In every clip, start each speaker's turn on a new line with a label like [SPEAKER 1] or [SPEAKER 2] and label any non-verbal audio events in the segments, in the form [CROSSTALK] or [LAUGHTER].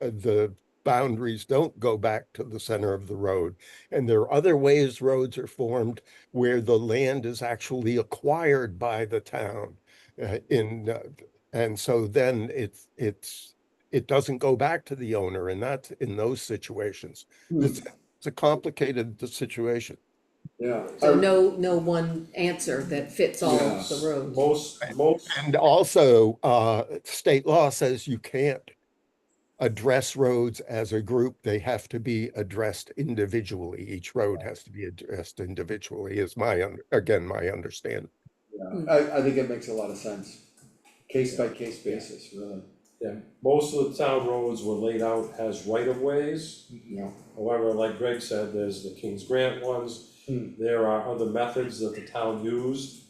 [SPEAKER 1] uh, the boundaries don't go back to the center of the road. And there are other ways roads are formed where the land is actually acquired by the town. uh, in, uh, and so then it's, it's, it doesn't go back to the owner and that's in those situations. It's, it's a complicated situation.
[SPEAKER 2] Yeah.
[SPEAKER 3] So no, no one answer that fits all of the
[SPEAKER 2] Yes.
[SPEAKER 3] roads.
[SPEAKER 2] Most, most,
[SPEAKER 1] And also, uh, state law says you can't address roads as a group. They have to be addressed individually. Each road has to be addressed individually is my, un- again, my understanding.
[SPEAKER 3] Mm.
[SPEAKER 4] I, I think it makes a lot of sense, case by case basis, really.
[SPEAKER 2] yeah, most of the town roads were laid out as right of ways.
[SPEAKER 4] Yeah.
[SPEAKER 2] However, like Greg said, there's the King's Grant ones.
[SPEAKER 4] Hmm.
[SPEAKER 2] There are other methods that the town used.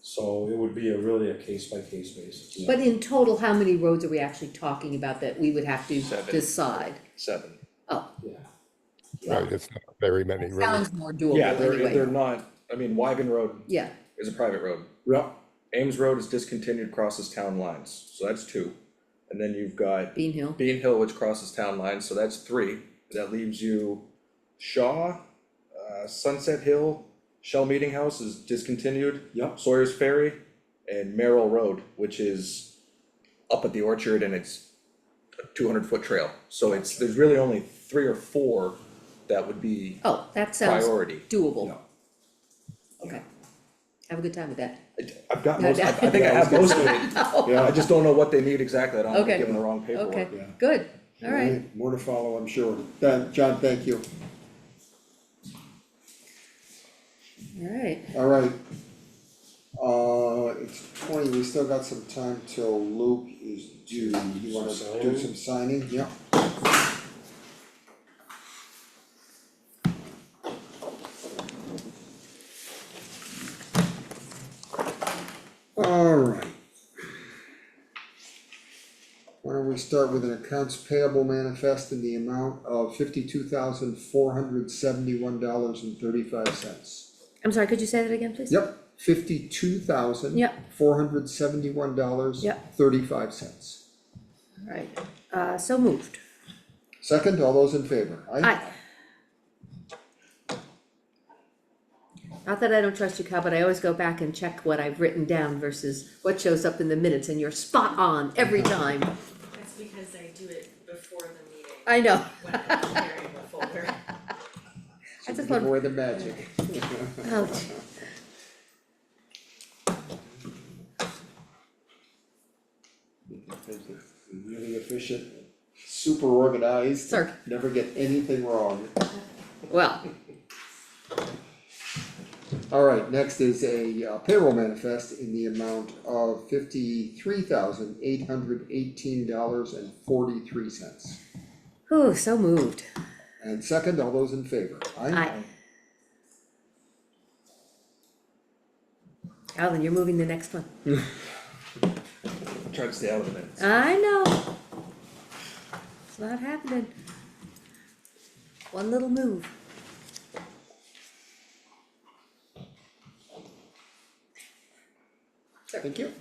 [SPEAKER 2] So it would be a really a case by case basis.
[SPEAKER 3] But in total, how many roads are we actually talking about that we would have to
[SPEAKER 5] Seven.
[SPEAKER 3] decide?
[SPEAKER 5] seven.
[SPEAKER 3] Oh,
[SPEAKER 2] Yeah.
[SPEAKER 1] Right, it's not very many roads.
[SPEAKER 3] sounds more doable
[SPEAKER 5] Yeah, they're, they're
[SPEAKER 3] anyway.
[SPEAKER 5] not, I mean, Wyven Road
[SPEAKER 3] Yeah,
[SPEAKER 5] is a private road.
[SPEAKER 4] Yeah,
[SPEAKER 5] Ames Road is discontinued, crosses town lines, so that's two. And then you've got
[SPEAKER 3] Bean Hill,
[SPEAKER 5] Bean Hill, which crosses town lines, so that's three. That leaves you Shaw, uh, Sunset Hill, Shell Meeting House is discontinued.
[SPEAKER 4] Yep.
[SPEAKER 5] Sawyer's Ferry and Merrill Road, which is up at the orchard and it's a two hundred foot trail. So it's, there's really only three or four that would be
[SPEAKER 3] oh, that sounds
[SPEAKER 5] priority.
[SPEAKER 3] doable,
[SPEAKER 5] No.
[SPEAKER 3] okay. Have a good time with that.
[SPEAKER 5] I- I've got most, I I think I have most of it,
[SPEAKER 3] Oh, [LAUGHS]
[SPEAKER 5] Yeah, I just don't know what they need exactly, I don't wanna
[SPEAKER 3] Okay.
[SPEAKER 5] give them the wrong paperwork.
[SPEAKER 3] Okay,
[SPEAKER 4] yeah.
[SPEAKER 3] good, all right.
[SPEAKER 4] More to follow, I'm sure. That, John, thank you.
[SPEAKER 3] All right,
[SPEAKER 4] All right. Uh, it's twenty, we still got some time till Luke is due. You wanna
[SPEAKER 2] Some
[SPEAKER 4] do
[SPEAKER 2] signing?
[SPEAKER 4] some signing? Yeah. All right. Why don't we start with an accounts payable manifest in the amount of fifty-two thousand four hundred seventy-one dollars and thirty-five cents.
[SPEAKER 3] I'm sorry, could you say that again, please?
[SPEAKER 4] Yep, fifty-two thousand
[SPEAKER 3] Yep.
[SPEAKER 4] four hundred seventy-one dollars.
[SPEAKER 3] Yep.
[SPEAKER 4] Thirty-five cents.
[SPEAKER 3] All right, uh, so moved.
[SPEAKER 4] Second, all those in favor?
[SPEAKER 3] Aye. Not that I don't trust you, Kyle, but I always go back and check what I've written down versus what shows up in the minutes, and you're spot on every time.
[SPEAKER 6] That's because I do it before the meeting.
[SPEAKER 3] I know.
[SPEAKER 6] When I'm preparing the folder.
[SPEAKER 3] I just
[SPEAKER 4] Give
[SPEAKER 3] want,
[SPEAKER 4] away the magic. [LAUGHS]
[SPEAKER 3] [LAUGHS] oh, gee.
[SPEAKER 4] Really efficient, super organized.
[SPEAKER 3] Sir.
[SPEAKER 4] Never get anything wrong.
[SPEAKER 3] well,
[SPEAKER 4] All right, next is a uh, payroll manifest in the amount of fifty-three thousand eight hundred eighteen dollars and forty-three cents.
[SPEAKER 3] whew, so moved.
[SPEAKER 4] And second, all those in favor?
[SPEAKER 3] Aye. Alan, you're moving the next one.
[SPEAKER 5] Try to stay out of the minutes.
[SPEAKER 3] I know. It's not happening. One little move.
[SPEAKER 4] Thank you.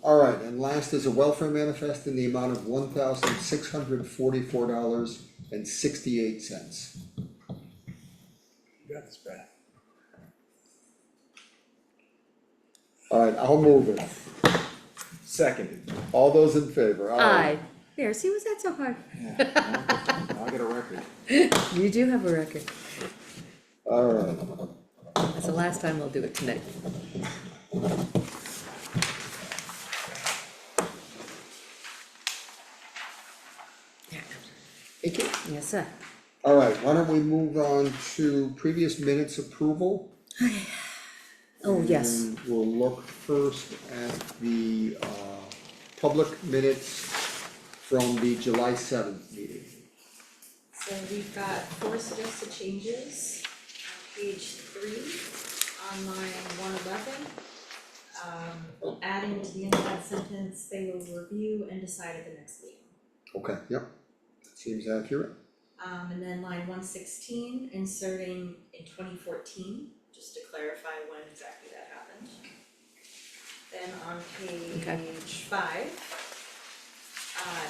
[SPEAKER 4] All right, and last is a welfare manifest in the amount of one thousand six hundred forty-four dollars and sixty-eight cents.
[SPEAKER 5] You got this, Brad.
[SPEAKER 4] All right, I'll move it.
[SPEAKER 3] [LAUGHS]
[SPEAKER 5] Seconded.
[SPEAKER 4] All those in favor?
[SPEAKER 3] Aye. There, see, was that so hard?
[SPEAKER 5] Now I got a record.
[SPEAKER 3] You do have a record.
[SPEAKER 4] All right,
[SPEAKER 3] That's the last time I'll do it tonight.
[SPEAKER 4] thank you.
[SPEAKER 3] Yes, sir.
[SPEAKER 4] All right, why don't we move on to previous minutes approval?
[SPEAKER 3] Oh, yes.
[SPEAKER 4] And we'll look first at the, uh, public minutes from the July seventh meeting.
[SPEAKER 6] So we've got four suggested changes, on page three, on line one eleven. Um, adding to the end of that sentence, they will review and decide at the next meeting.
[SPEAKER 4] Okay, yep, that seems accurate.
[SPEAKER 6] Um, and then line one sixteen, inserting in twenty fourteen, just to clarify when exactly that happened. Then on
[SPEAKER 3] Okay.
[SPEAKER 6] page five. Uh,